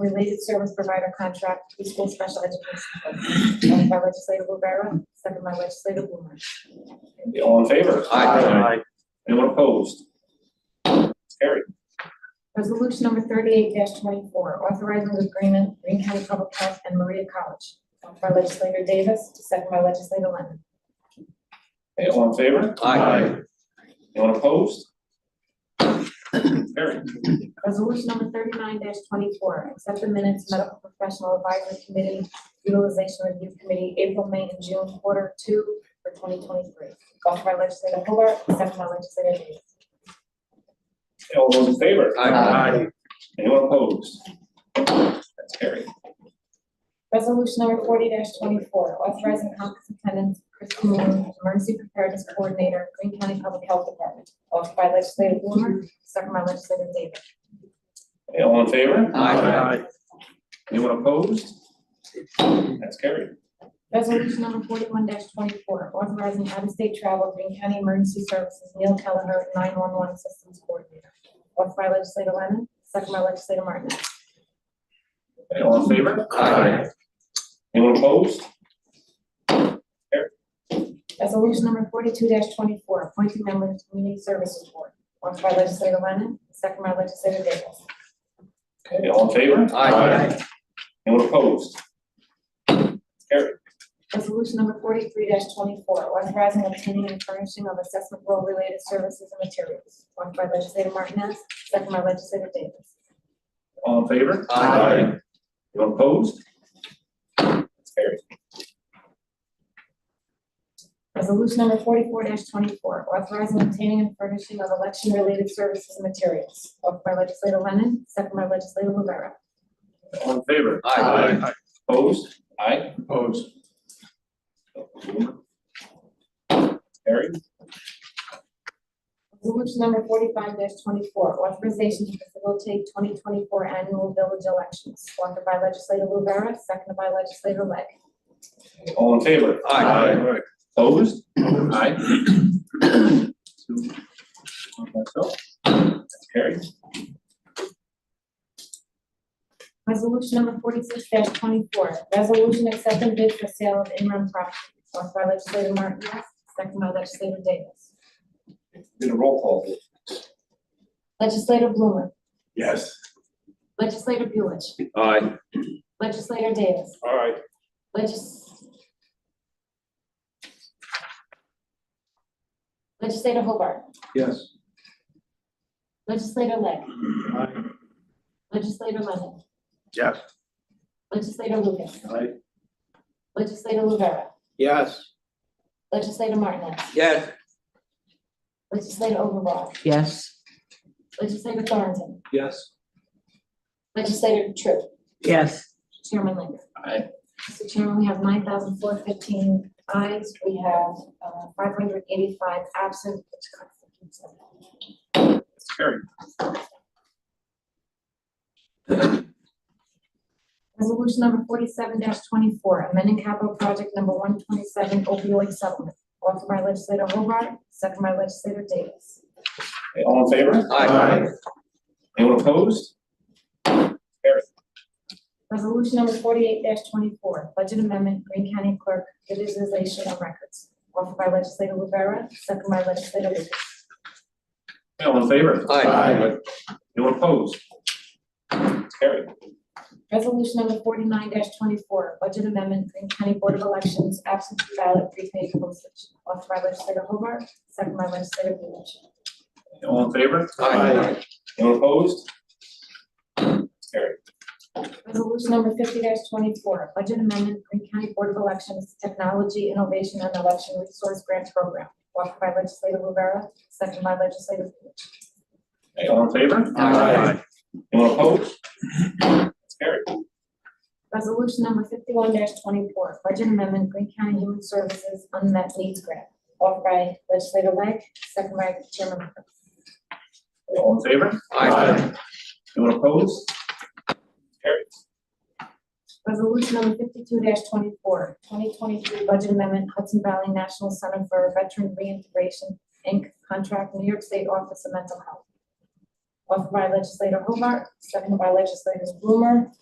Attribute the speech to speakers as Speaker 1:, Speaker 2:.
Speaker 1: Related service provider contract to school special education. program. Moved by legislative Rivera, second by legislative Blumer.
Speaker 2: Okay, All in favor?
Speaker 3: Aye.
Speaker 2: Anyone opposed? Carried.
Speaker 1: Resolution number thirty-eight twenty-four, authorizing agreement, Green County Public Health and Maria College. Moved by legislator Davis, second by legislator Lemon.
Speaker 2: Okay, all in favor?
Speaker 3: Aye.
Speaker 2: Anyone opposed? Carried.
Speaker 1: Resolution number thirty-nine twenty-four, accept the minutes medical professional advisory committee utilization review committee, April, May, and June quarter two for twenty twenty-three. Offered by legislator Hobart, second by legislator Davis.
Speaker 2: Okay, All those in favor?
Speaker 3: Aye.
Speaker 2: Anyone opposed? That's carried.
Speaker 1: Resolution number forty twenty-four, authorizing superintendent Chris Moon, emergency preparedness coordinator, Green County Public Health Department. Offered by legislator Blumer, second by legislator Davis.
Speaker 2: Okay, all in favor?
Speaker 3: Aye.
Speaker 2: Anyone opposed? That's carried.
Speaker 1: Resolution number forty-one twenty-four, authorizing out-of-state travel, Green County Emergency Services, Neil Kelleher, nine-one-one systems coordinator. Offered by legislator Lennon, second by legislator Martinez.
Speaker 2: Okay, all in favor?
Speaker 3: Aye.
Speaker 2: Anyone opposed?
Speaker 1: Resolution number forty-two twenty-four, appointing members to community services board. Offered by legislator Lennon, second by legislator Davis.
Speaker 2: Okay, all in favor?
Speaker 3: Aye.
Speaker 2: Anyone opposed? Carried.
Speaker 1: Resolution number forty-three twenty-four, authorizing obtaining and furnishing of assessment role-related services and materials. Offered by legislator Martinez, second by legislator Davis.
Speaker 2: All in favor?
Speaker 3: Aye.
Speaker 2: Anyone opposed? That's carried.
Speaker 1: Resolution number forty-four twenty-four, authorizing obtaining and furnishing of election-related services and materials. Offered by legislator Lennon, second by legislator Rivera.
Speaker 2: All in favor?
Speaker 3: Aye.
Speaker 2: Opposed? Aye.
Speaker 3: Opposed.
Speaker 2: Carried.
Speaker 1: Resolution number forty-five twenty-four, authorization to facilitate twenty twenty-four annual village elections. Offered by legislator Rivera, second by legislator Lang.
Speaker 2: All in favor?
Speaker 3: Aye.
Speaker 2: Opposed? Aye. Two, one myself. That's Carried.
Speaker 1: Resolution number forty-six twenty-four, resolution accepting bid for sale of in-run property, offered by legislator Martinez, second by legislator Davis.
Speaker 2: Did a roll call. vote.
Speaker 1: Legislator Blumer,
Speaker 3: Yes.
Speaker 1: legislator Buich,
Speaker 3: Aye.
Speaker 1: legislator Davis,
Speaker 3: All right.
Speaker 1: legis- legislator Hobart,
Speaker 3: Yes.
Speaker 1: legislator Lang,
Speaker 3: Aye.
Speaker 1: legislator Lemon,
Speaker 3: Yes.
Speaker 1: legislator Lucas,
Speaker 3: Aye.
Speaker 1: legislator Rivera,
Speaker 3: Yes.
Speaker 1: legislator Martinez,
Speaker 3: Yes.
Speaker 1: legislator Overbaugh,
Speaker 4: Yes.
Speaker 1: legislator Thornton,
Speaker 3: Yes.
Speaker 1: legislator Tru,
Speaker 4: Yes.
Speaker 1: chairman Linger.
Speaker 2: Aye.
Speaker 1: Mr. Chairman, we have nine thousand four fifteen ayes, we have uh, five hundred eighty-five absent, which constitutes a quorum.
Speaker 2: That's Carried.
Speaker 1: Resolution number forty-seven twenty-four, amending capital project number one twenty-seven opioid settlement, offered by legislator Hobart, second by legislator Davis.
Speaker 2: Okay, All in favor?
Speaker 3: Aye.
Speaker 2: Anyone opposed? Carried.
Speaker 1: Resolution number forty-eight twenty-four, budget amendment, Green County Clerk, digitization of records, offered by legislator Rivera, second by legislator Lucas.
Speaker 2: Okay, All in favor?
Speaker 3: Aye.
Speaker 2: Anyone opposed? That's Carried.
Speaker 1: Resolution number forty-nine twenty-four, budget amendment, Green County Board of Elections, absentee ballot, prepaid postage, offered by legislator Hobart, second by legislator Lewis.
Speaker 2: Okay, All in favor?
Speaker 3: Aye.
Speaker 2: Anyone opposed? That's Carried.
Speaker 1: Resolution number fifty twenty-four, budget amendment, Green County Board of Elections, technology, innovation, and election resource grant program, offered by legislator Rivera, second by legislator Lewis.
Speaker 2: Okay, All in favor?
Speaker 3: Aye.
Speaker 2: Anyone opposed? That's Carried.
Speaker 1: Resolution number fifty-one twenty-four, budget amendment, Green County Human Services unmet needs grant, offered by legislator Lang, second by chairman Linger.
Speaker 2: Okay, All in favor?
Speaker 3: Aye.
Speaker 2: Anyone opposed? Carried.
Speaker 1: Resolution number fifty-two 24 2023 budget amendment Hudson Valley National Center for Veteran Reintegration, Inc., contract New York State Office of Mental Health. offered by legislator Hobart, seconded by legislators Blumer,